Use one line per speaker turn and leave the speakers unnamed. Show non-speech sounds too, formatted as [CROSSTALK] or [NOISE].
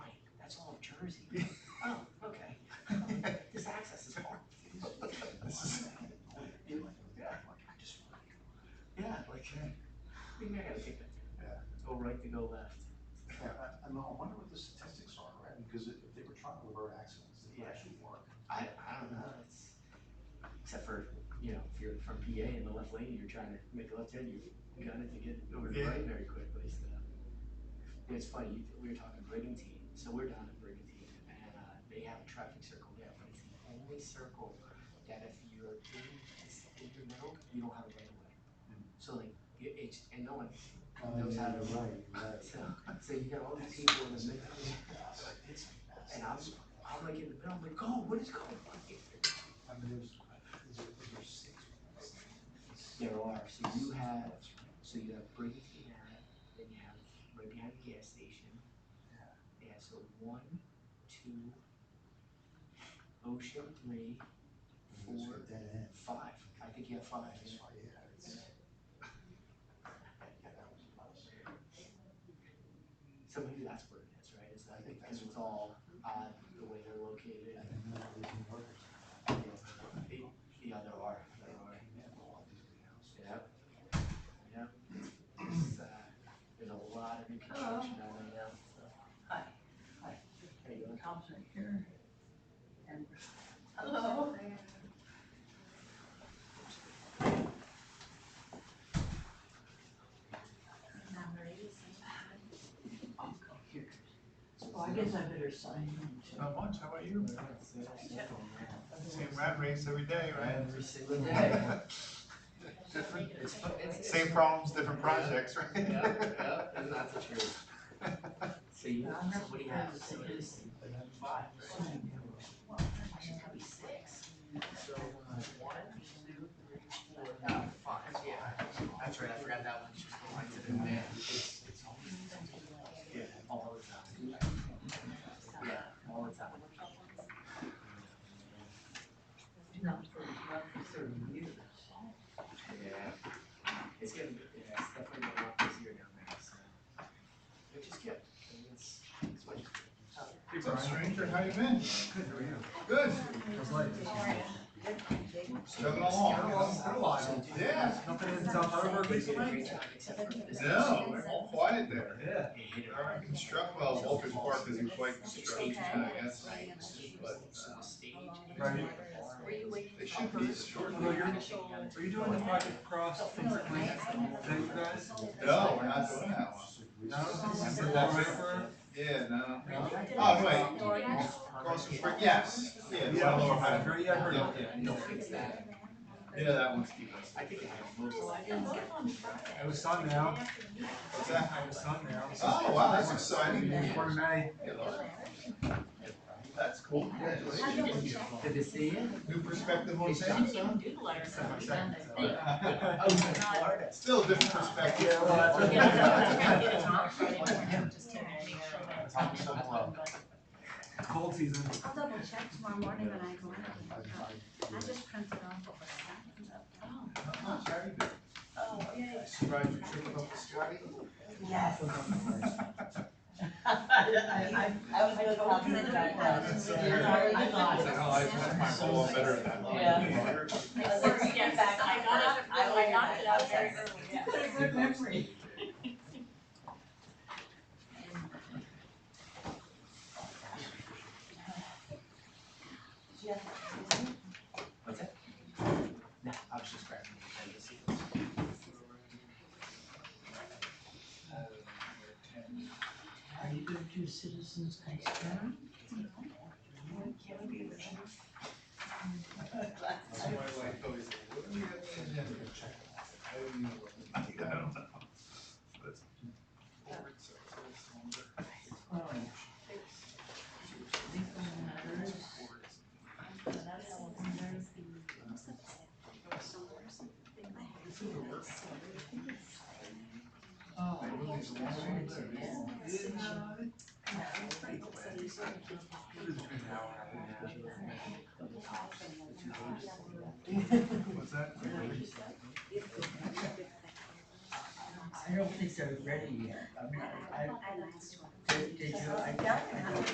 Jersey. Oh, okay. [LAUGHS] This access is hard.
This is-
Yeah. Yeah, like, [LAUGHS] we may have to take it.
Yeah.
Go Oh, right to go left.
Yeah, I, I know, I wonder what the statistics are, right? Because if if they were trying to avert accidents, they
Yeah.
would actually work.
I, I don't know, it's, except for, you know, if you're from PA in the left lane, you're trying to make a left hand, you got it to get over to the right very quickly, so. It's funny, you- we were talking Brigantine, so we're down at Brigantine, and, uh, they have a traffic circle there, but it's the only circle that if you're in, it's in your middle, you don't have a right of way. So like, it, it's, and no one, knows how to
right,
so, so you got all these people in the middle,
It's a mess.
And I'm- I'm like in the middle, I'm like, oh, what is going on here?
I mean, there's, is there, is there six?
There are, so you have, so you have Brigantine Ave, then you have right behind the gas station. Yeah, so one, two, Ocean three, four,
Dead end.
five, I think you have five,
That's why, yeah, it's. Yeah, that was a mess.
so maybe that's what it is, right, it's
I
like,
think
because
that's
it's all odd, the way they're located,
And then there were the murders.
yeah, yeah, there are, there
They
are,
came in, all these big houses.
yeah. Yeah, it's, uh, there's a lot of new construction down there now, so.
Hi.
Hi, how you doing?
Thompson here. And, hello. Oh, go here.
Oh,
Well, I guess I better sign in too.
Not much, how about you?
Yeah.
Same rat race every day, right?
Every single day.
Different,
It's, fu- it's.
[LAUGHS] same problems, different projects, right?
Yeah,
[LAUGHS]
yeah, and that's the truth. So you,
Yeah,
so
I'm not
what do you have?
surprised
So
that
it is five, right? I should have six. So, uh, one, two, three, four, uh, five, yeah. That's right, I forgot that one, just go right to the man. It's, it's always. Yeah, all the time. Yeah, all the time.
Not for, not for thirty years.
Yeah. It's getting, yeah, it's definitely getting a lot busier down there, so. Which is good, I mean, it's, it's what.
What's up, stranger, how you been?
Good, how are you?
Good,
How's life?
chugging along, Good while. Yeah,
[LAUGHS]
Nothing in South Harbor recently?
no, we're all quiet there.
Yeah.
Our construct, well, Walker's Park isn't quite construction, I guess, but, uh,
Right.
they should be
Well,
shortly.
you're- Are you doing the project across from the you guys?
No, we're not doing that one.
Remember that river?
Yeah, no.
No?
Oh, wait. Across the street, yes, yeah, it's on Lower
I've
Highland.
heard, yeah, I've heard of
Yeah.
it.
They'll fix that.
Yeah, that one's keeping us.
I think it has most.
Well, I didn't get on Friday.
It was sun now,
What's that?
it was sun now.
Oh, wow, that's exciting.
Yeah,
Hey,
Forty May,
Laura. That's cool, congratulations.
Good to see you.
New perspective on
It's
things, huh?
Oh, you're in Florida.
[LAUGHS] Still a different perspective.
Yeah, well, that's- [LAUGHS] cold season.
I'll double check tomorrow morning when I go
I,
in.
I,
I just printed off what was sent.
Not much, how you doing?
Oh,
Surprised you tripped up with Scotty?
Yes. I, I, I was really confident that I was.
So-
I
It's like, oh, I left my ball better than that.
Yeah.
As soon as you get back, I got it, I I knocked it out very early, yeah.
Good memory. Jeff, is it?
What's that? No, I was just grabbing the agenda see
Are you gonna do citizens ice cream? Can we do that?
That's why I like always, what do we have to do? I don't even know what we do. I don't know. But it's boring, so it's always longer.
Oh,
I really is a long way there. What's that?
I don't think they're ready yet. I mean, I, I, they, they do, I doubt they have